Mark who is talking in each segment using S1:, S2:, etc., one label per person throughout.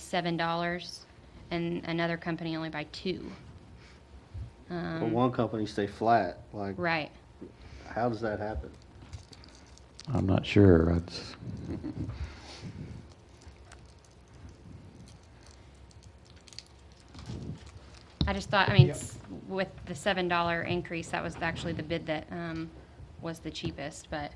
S1: seven dollars, and another company only by two.
S2: But
S1: Um,
S2: one company stay flat, like,
S1: right.
S2: how does that happen?
S3: I'm not sure. That's,
S1: I just thought, I mean, s- with the seven dollar increase, that was actually the bid that, um, was the cheapest, but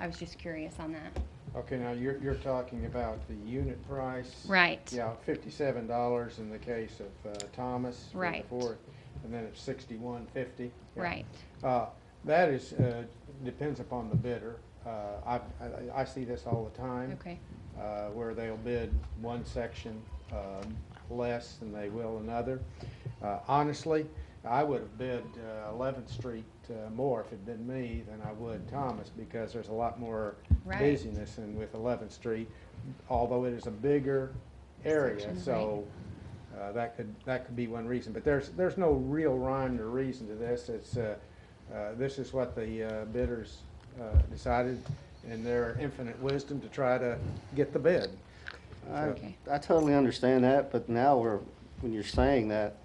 S1: I was just curious on that.
S4: Okay, now you're, you're talking about the unit price.
S1: Right.
S4: Yeah, fifty-seven dollars in the case of uh, Thomas. for the
S1: Right.
S4: fourth, And then it's sixty-one fifty.
S1: Right.
S4: Uh, That is, uh, depends upon the bidder. Uh, I, I, I see this all the time.
S1: Okay.
S4: uh, where they'll bid one section um, less than they will another. Uh, Honestly, I would have bid uh, 11th Street uh, more if it'd been me than I would Thomas, because there's a lot more
S1: Right.
S4: busyness in with 11th Street, although it is a bigger area,
S1: Section,
S4: so uh, that could, that could be one reason. But there's, there's no real rhyme or reason to this. It's, uh, uh, this is what the uh, bidders uh, decided in their infinite wisdom to try to get the bid.
S2: I,
S1: Okay.
S2: I totally understand that, but now we're, when you're saying that,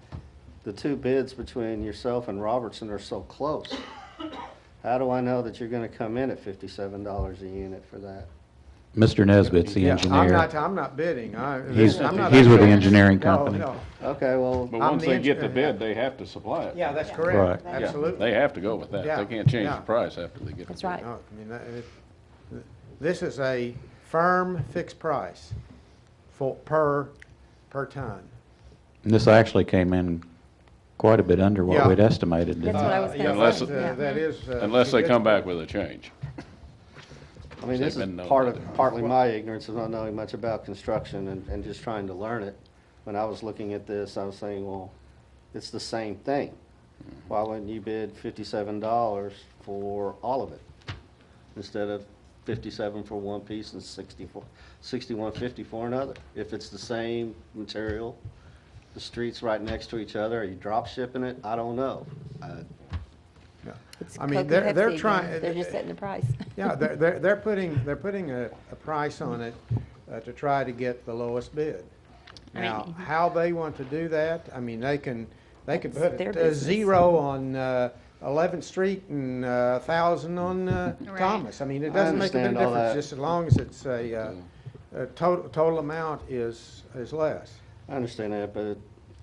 S2: the two bids between yourself and Robertson are so close. How do I know that you're gonna come in at fifty-seven dollars a unit for that?
S3: Mr. Nesbitt's the
S4: Yeah, I'm
S3: engineer.
S4: not, I'm not bidding. I.
S3: He's,
S4: I'm not-
S3: he's with the engineering
S4: No,
S3: company.
S4: no.
S2: Okay, well,
S5: But
S4: I'm
S5: once
S4: the
S5: they get the
S4: engineer, uh, yeah.
S5: bid, they have to supply it.
S4: Yeah, that's
S3: Right.
S4: correct.
S5: Yeah,
S4: Absolutely.
S5: They have to go with that.
S4: Yeah,
S5: They can't change
S4: yeah.
S5: the price after they get the bid.
S6: That's right.
S4: No, I mean, that- it- th- this is a firm fixed price for, per, per ton.
S3: And this actually came in quite a bit under what
S4: Yeah.
S3: we'd estimated, didn't
S6: That's
S3: it?
S6: what I was
S4: Uh,
S6: gonna
S4: yeah,
S5: say. Unless-
S4: that- uh, That is. uh,
S5: Unless they
S4: good-
S5: come back with a change.
S2: I mean, this
S5: They've
S2: is
S5: been known
S2: part
S5: to
S2: of,
S5: do it.
S2: partly my ignorance of not knowing much about construction and, and just trying to learn it. When I was looking at this, I was saying, well, it's the same thing. Why wouldn't you bid fifty-seven dollars for all of it? Instead of fifty-seven for one piece and sixty-four, sixty-one fifty for another? If it's the same material, the street's right next to each other, are you drop shipping it? I don't know. Uh,
S4: Yeah.
S6: It's
S4: I mean,
S6: Coke and
S4: they're- they're
S6: Pepsi again.
S4: trying-
S6: They're just setting the price.
S4: Yeah, they're, they're, they're putting, they're putting a, a price on it uh, to try to get the lowest bid. Now,
S1: Right.
S4: how they want to do that, I mean, they can, they could
S6: That's
S4: put
S6: their
S4: a
S6: business.
S4: zero on uh, 11th Street and a thousand on uh,
S1: Right.
S4: Thomas. I mean,
S2: I
S4: it doesn't make a big
S2: understand all
S4: difference,
S2: that.
S4: just as long as it's a, uh, a total, total amount is, is less.
S2: I understand that, but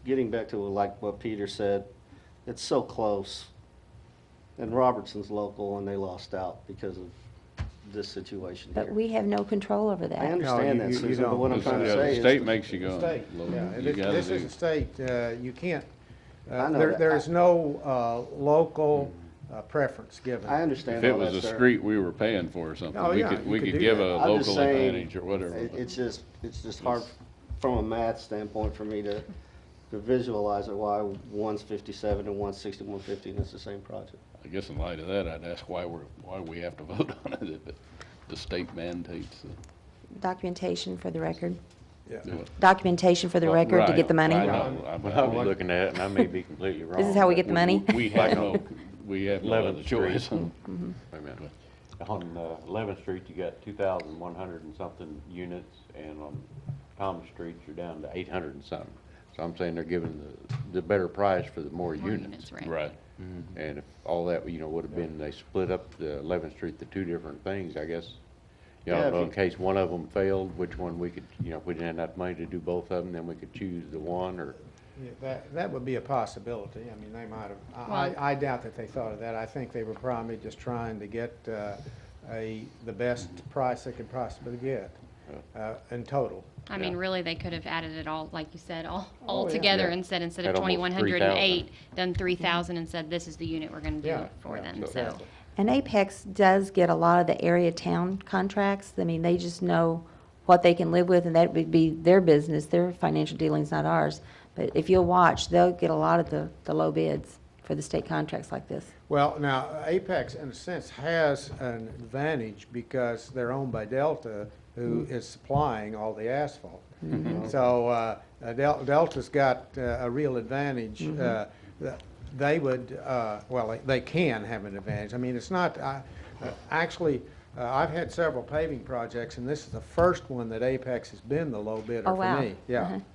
S2: getting back to like what Peter said, it's so close. And Robertson's local and they lost out because of this situation
S6: But
S2: here.
S6: we have no control over
S2: I
S6: that.
S2: understand
S4: No,
S2: that,
S4: you- you- you
S2: Susan, but what I'm
S5: This-
S2: trying to
S5: yeah,
S2: say
S5: The
S2: is.
S5: state
S2: the-
S5: makes you
S4: The
S5: go.
S4: state,
S5: low.
S4: yeah,
S5: You
S4: this,
S5: gotta
S4: this is
S5: do-
S4: a state, uh, you can't,
S2: I
S4: uh,
S2: know
S4: there,
S2: that.
S4: there is no uh, local
S5: Mm.
S4: uh, preference given.
S2: I understand
S5: If
S2: all
S5: it
S2: that,
S5: was a
S2: sir.
S5: street we were paying for or something,
S4: Oh,
S5: we
S4: yeah,
S5: could,
S4: you
S5: we
S4: could do
S5: could give
S4: that.
S5: a
S2: I'm just
S5: local
S2: saying,
S5: advantage or whatever.
S2: it-
S5: but-
S2: It's just, it's just hard from a math standpoint for me to, to visualize it, why one's fifty-seven and one's sixty-one fifty and it's the same project.
S5: I guess in light of that, I'd ask why we're, why we have to vote on it if it- the state mandates the-
S6: Documentation for the record.
S4: Yeah.
S5: do it.
S6: documentation for the record to
S5: Right,
S6: get the money?
S5: I know, I'm-
S7: Well, I'm looking at it, and I may be completely wrong.
S6: This is how we get the
S7: but
S6: money?
S5: We have no, we have no other
S7: 11th Street.
S5: choice.
S7: Wait a minute. On uh, 11th Street, you got 2,100 and something units, and on Thomas Street, you're down to 800 and something. So I'm saying they're giving the, the better price for the more
S1: More
S7: units.
S1: right.
S5: Right.
S2: Mm-hmm.
S7: And if all that, you know, would have been, they split up the 11th Street, the two different things, I guess. You
S2: Yeah,
S7: know,
S2: if you-
S7: in case one of them failed, which one we could, you know, if we didn't have enough money to do both of them, then we could choose the one, or
S4: Yeah, That, that would be a possibility. I mean, they might have, I-
S1: Well-
S4: I, I doubt that they thought of that. I think they were probably just trying to get uh, a, the best price they could possibly get uh, in total.
S1: I mean,
S7: Yeah.
S1: really, they could have added it all, like you said, all,
S4: Oh,
S1: all
S4: yeah. Mm-hmm.
S1: together
S7: Yeah.
S1: and said, instead of
S7: At almost
S1: twenty-one hundred and eight, then three thousand and said, this is the unit we're gonna do
S4: Yeah,
S1: it for
S4: yeah,
S1: them,
S7: so-
S1: so.
S6: And Apex does get a lot of the area town contracts. I mean, they just know what they can live with, and that would be their business, their financial dealings, not ours. But if you'll watch, they'll get a lot of the, the low bids for the state contracts like this.
S4: Well, now, Apex, in a sense, has an advantage because they're owned by Delta, who
S6: Hmm.
S4: is supplying all the asphalt.
S6: Mm-hmm.
S4: So uh, uh, Del- Delta's got uh, a real advantage.
S6: Mm-hmm.
S4: uh, th- They would, uh, well, they- they can have an advantage. I mean, it's not, I- uh, actually, uh, I've had several paving projects, and this is the first one that Apex has been the low bidder
S6: Oh,
S4: for
S6: wow.
S4: me. Yeah.
S6: Uh-huh.